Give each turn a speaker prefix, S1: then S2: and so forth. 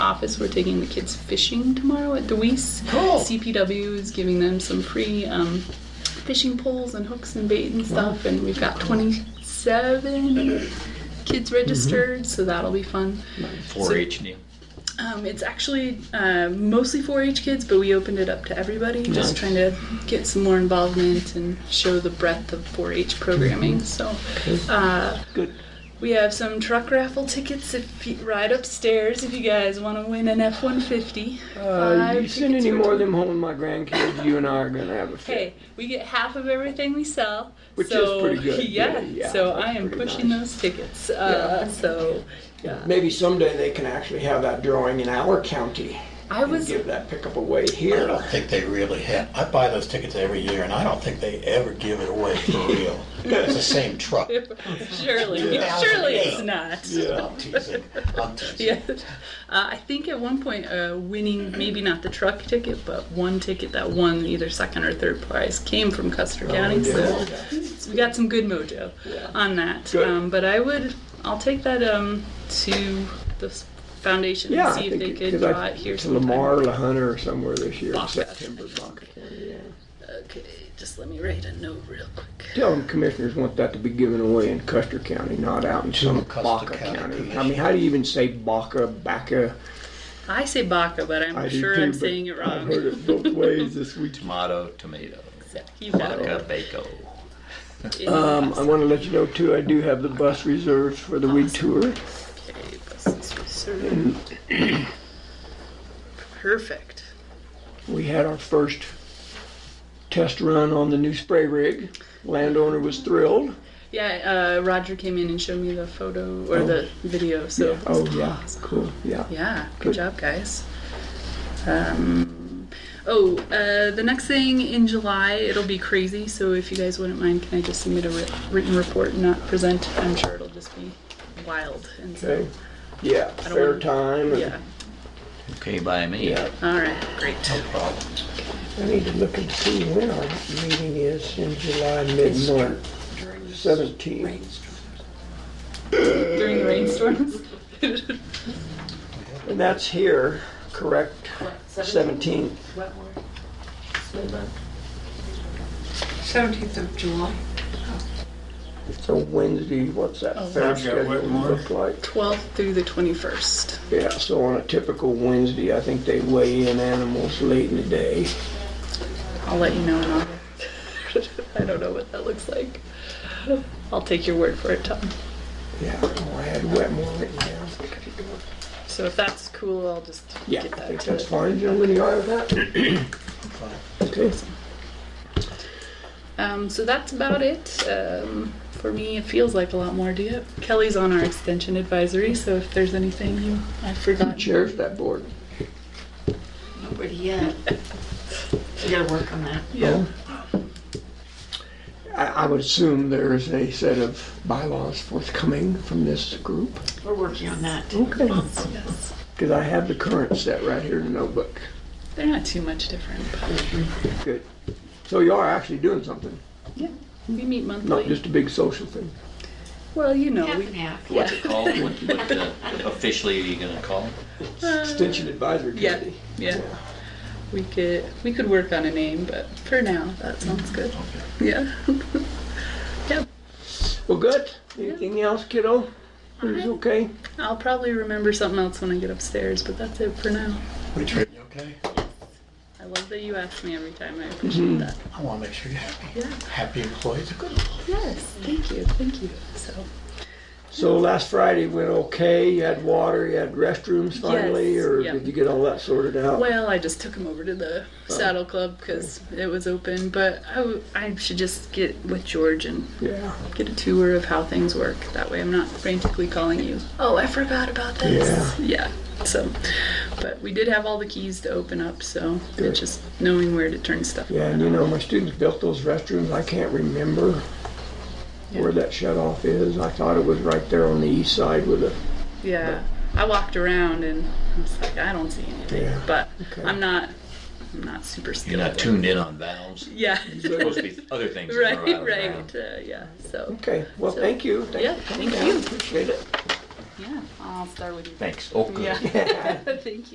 S1: office. We're taking the kids fishing tomorrow at Deweese.
S2: Cool.
S1: CPW is giving them some free um, fishing poles and hooks and bait and stuff, and we've got 27 kids registered, so that'll be fun.
S3: 4-H Neil.
S1: Um, it's actually uh, mostly 4-H kids, but we opened it up to everybody, just trying to get some more involvement and show the breadth of 4-H programming. So uh,
S2: Mm-hmm. Good.
S1: we have some truck raffle tickets if you, right upstairs if you guys want to win an F-150.
S2: Uh, you
S1: Five
S2: send
S1: tickets
S2: any
S1: for
S2: more
S1: two-
S2: of them home, my grandkids, you and I are gonna have a fit.
S1: Hey, we get half of everything we sell.
S2: Which is
S1: so,
S2: pretty good.
S1: Yeah.
S2: Yeah, yeah,
S1: so
S2: that's
S1: I am
S2: pretty
S1: pushing
S2: nice.
S1: those tickets. Uh, So yeah.
S4: Maybe someday they can actually have that drawing in our county
S1: I
S4: and
S1: was
S4: give that pickup away
S5: I
S4: here.
S5: don't think they really have, I buy those tickets every year and I don't think they ever give it away for real. It's the same truck.
S1: surely,
S5: Yeah.
S1: surely
S5: Yeah.
S1: it's not.
S5: I'm teasing, I'm teasing.
S1: Yeah. Uh, I think at one point, uh, winning maybe not the truck ticket, but one ticket that won either second or third prize came from Custer
S2: Oh,
S1: County. so we got some good mojo on that.
S2: Good.
S1: Um, but I would, I'll take that um, to the s- foundation
S2: Yeah,
S1: and see
S2: I
S1: if
S2: think
S1: they
S2: it-
S1: could
S2: 'cause I-
S1: draw it here.
S2: To
S1: sometime.
S2: Lamar, La Hunter, or somewhere this year in
S1: Bach Fest.
S2: September. Bach Fest, yeah.
S1: Okay, just let me write a note real quick.
S2: Tell them commissioners want that to be given away in Custer County, not out in some
S5: Custer
S2: Baca
S5: County
S2: County. I
S5: Commission.
S2: mean, how do you even say Baca, Baca?
S1: I say Baca, but I'm
S2: I do
S1: sure
S2: too,
S1: I'm
S2: but
S1: saying it
S2: I've
S1: wrong.
S2: heard it both ways this week.
S3: Tomato, tomato.
S1: You
S3: Vodka, bacon.
S2: Um, I want to let you know too, I do have the bus reserved for the week tour.
S1: Okay, buses reserved. Perfect.
S2: We had our first test run on the new spray rig. Landowner was thrilled.
S1: Yeah, uh, Roger came in and showed me the photo or the video. So
S2: Oh, yeah, cool, yeah.
S1: Yeah, good job, guys. Um, oh, uh, the next thing in July, it'll be crazy. So if you guys wouldn't mind, can I just submit a writ- written report and not present? I'm sure it'll just be wild. And so,
S2: Okay, yeah,
S1: don't
S2: fair
S1: wanna-
S2: time. and-
S1: yeah.
S3: Okay, by me.
S2: Yeah,
S1: All right, great.
S2: I need to look and see when our meeting is in July, mid-month, seventeen.
S1: During the rainstorms.
S2: And that's here, correct? Seventeen.
S6: Seventeenth of July.
S2: So Wednesday, what's
S1: Oh.
S2: that fair
S4: I've got
S2: schedule
S4: Whitmore.
S2: look like?
S1: 12th through the 21st.
S2: Yeah, so on a typical Wednesday, I think they weigh in animals late in the day.
S1: I'll let you know in August. I don't know what that looks like. I'll take your word for it, Tom.
S2: Yeah, oh, I had Wetmore written down.
S1: So if that's cool, I'll just
S2: Yeah,
S1: get
S2: I
S1: that
S2: think
S1: to
S2: that's fine, gentlemen, you all right with that? Okay.
S1: Um, so that's about it. Um, for me, it feels like a lot more. Do you? Kelly's on our extension advisory, so if there's anything you I forgot.
S2: Chairs that board.
S6: Nobody yet. We gotta work on that.
S1: Yeah.
S2: Oh. I, I would assume there is a set of bylaws forthcoming from this group.
S6: We're working on that.
S2: Okay.
S1: Yes.
S2: Because I have the current set right here in the notebook.
S1: They're not too much different. But
S2: Good. So you are actually doing something,
S1: yeah. We meet monthly.
S2: not just a big social thing.
S1: well, you know,
S6: Half and
S1: we,
S6: half.
S3: What's it called? What, what uh, officially are you gonna call it?
S2: Extension Advisory
S1: Uh, yeah,
S2: Committee.
S1: yeah. We could we could work on a name, but for now that sounds good. Yeah. yeah.
S2: Well, good. Anything else, kiddo? It's
S1: Uh-huh.
S2: okay.
S1: I'll probably remember something else when I get upstairs, but that's it for now.
S5: We treating you okay?
S1: I love that you ask me every time. I appreciate
S2: Mm-hmm.
S1: that.
S5: I wanna make sure you're happy.
S1: Yeah.
S5: Happy employees are good employees.
S1: Yes, thank you, thank you. So,
S2: So last Friday went okay. You had water, you had restrooms finally,
S1: Yes,
S2: or
S1: yeah.
S2: did you get all that sorted out?
S1: well, I just took him over to the
S2: Oh.
S1: saddle club because it was open, but I, w- I should just get with George and
S2: Yeah.
S1: get a tour of how things work. That way I'm not frantically calling you, oh, I forgot about this. Yeah. So, but we did have all the keys to open up, so
S2: Good.
S1: it's just knowing where to turn stuff.
S2: Yeah, and you know, my students built those restrooms. I can't remember where that shut off is. I thought it was right there on the east side with a,
S1: Yeah, I walked around and I was like, I don't see anything,
S2: Yeah,
S1: but
S2: okay.
S1: I'm not, I'm not super skilled.
S3: You're not
S1: with-
S3: tuned in on valves.
S1: Yeah.
S3: Supposed to be other things. going
S1: right,
S3: around.
S1: right. Uh, yeah. So
S2: okay, well, thank you. Thank
S1: Yeah,
S2: you for coming
S1: thank
S2: down.
S1: you.
S2: Appreciate it.
S1: yeah, I'll start with you.
S3: Thanks. Oh, good.
S1: Yeah. Thank you.